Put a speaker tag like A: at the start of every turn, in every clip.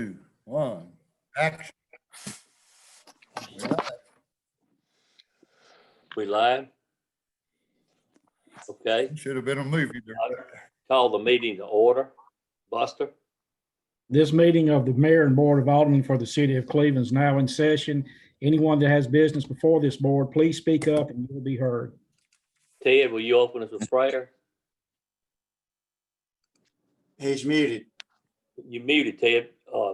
A: two, one, action.
B: We live? Okay,
A: Should have been a movie there.
B: call the meeting to order. Buster,
C: This meeting of the mayor and board of aldermen for the city of Cleveland is now in session. Anyone that has business before this board, please speak up and you'll be heard.
B: Ted, will you open us with prayer?
D: He's muted.
B: You muted, Ted. Uh,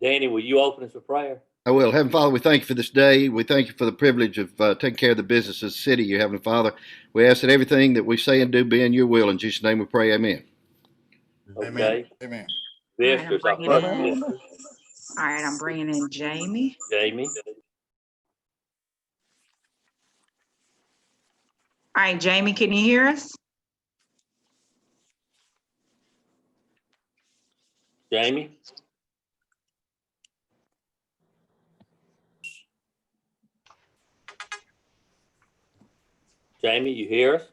B: Danny, will you open us with prayer?
E: I will. Heavenly Father, we thank you for this day. We thank you for the privilege of uh, taking care of the business of the city, you Heavenly Father. We ask that everything that we say and do be in your will. In Jesus' name we pray, amen.
D: Amen.
B: Okay.
A: Amen.
F: right,
B: Visitors,
F: I'm
B: our
F: bringing
B: first
F: in-
B: visitor,
F: All right, I'm bringing in Jamie.
B: Jamie.
F: All right, Jamie, can you hear us?
B: Jamie? Jamie, you hear us?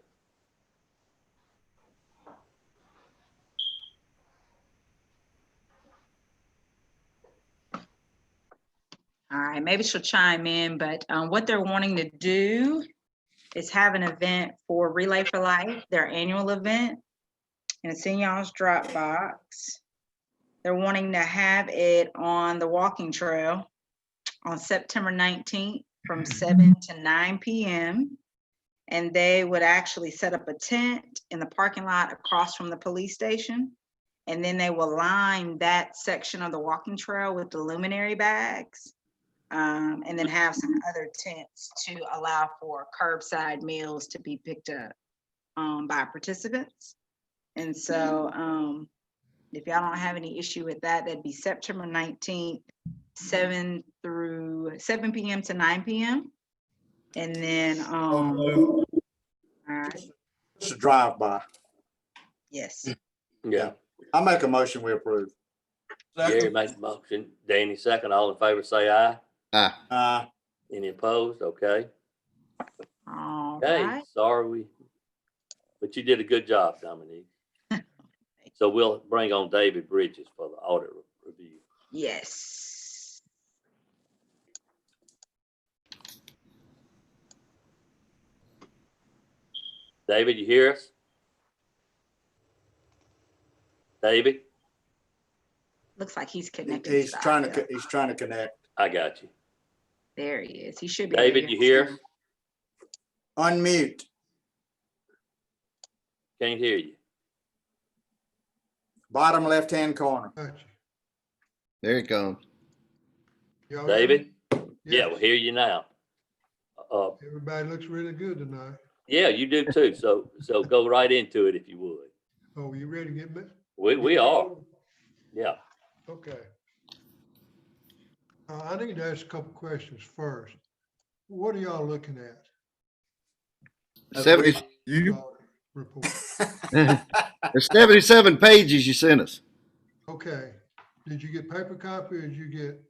F: All right, maybe she'll chime in, but um, what they're wanting to do is have an event for Relay for Life, their annual event. And it's in y'all's Dropbox. They're wanting to have it on the walking trail on September 19th from 7 to 9 PM. And they would actually set up a tent in the parking lot across from the police station. And then they will line that section of the walking trail with the luminary bags um, and then have some other tents to allow for curbside meals to be picked up um, by participants. And so,
D: Mm-hmm.
F: um, if y'all don't have any issue with that, that'd be September nineteenth, seven through, seven PM to nine PM. And then, um, all
A: Oh,
F: right,
D: It's a drive-by.
F: yes,
B: Yeah.
D: I make a motion we approve.
B: Gary makes a motion. Danny second. All in favor, say aye.
E: Aye.
D: Uh,
B: Any opposed? Okay.
D: Mm.
F: all
B: Okay,
F: right,
B: sorry we, but you did a good job, Dominique. So we'll bring on David Bridges for the audit review.
F: yes.
B: David, you hear us? David,
F: Looks like he's
D: he-
F: connected.
D: he's
F: the
D: trying to,
F: audio.
D: co- he's trying to connect.
B: I got you.
F: There he is. He should be.
B: David, you hear?
D: Unmute.
B: Can't hear you.
D: Bottom left-hand corner.
E: There it comes.
B: David? Yeah, we hear you now. Uh,
G: Everybody looks really good tonight.
B: yeah, you do too. So, so go right into it if you would.
G: Oh, you ready to get me?
B: We, we are, yeah.
G: Okay. Uh, I need to ask a couple questions first. What are y'all looking at?
E: Seventy,
A: You,
G: uh, Report.
E: there's 77 pages you sent us,
G: Okay. Did you get paper copy or did you get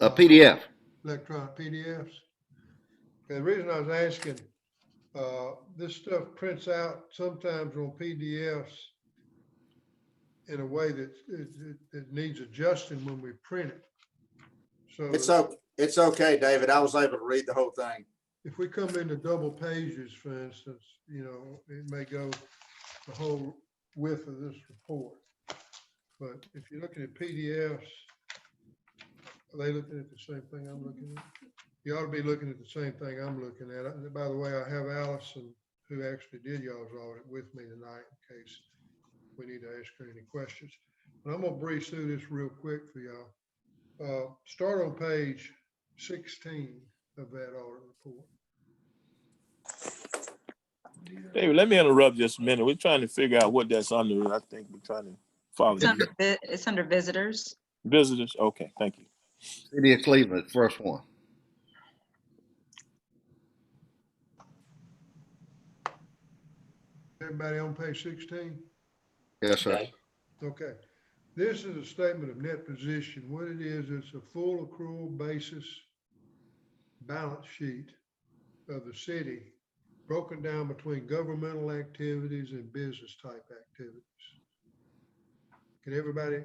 E: a PDF.
G: electronic PDFs? Okay, The reason I was asking, uh, this stuff prints out sometimes on PDFs in a way that it, it, it needs adjusting when we print it. So.
D: It's o, it's okay, David. I was able to read the whole thing.
G: if we come into double pages, for instance, you know, it may go the whole width of this report. But if you're looking at PDFs, are they looking at the same thing I'm looking at? You ought to be looking at the same thing I'm looking at. And by the way, I have Allison, who actually did y'all's audit with me tonight in case we need to ask her any questions. But I'm gonna breeze through this real quick for y'all. Uh, start on page sixteen of that audit report.
H: David, let me interrupt just a minute. We're trying to figure out what that's under. I think we're trying to follow
F: It's under, vi- it's under visitors.
H: visitors. Okay, thank you.
E: City of Cleveland, first one.
G: Everybody on page sixteen?
E: Yes, sir.
B: Okay.
G: Okay. This is a statement of net position. What it is, it's a full accrual basis balance sheet of the city, broken down between governmental activities and business type activities. Can everybody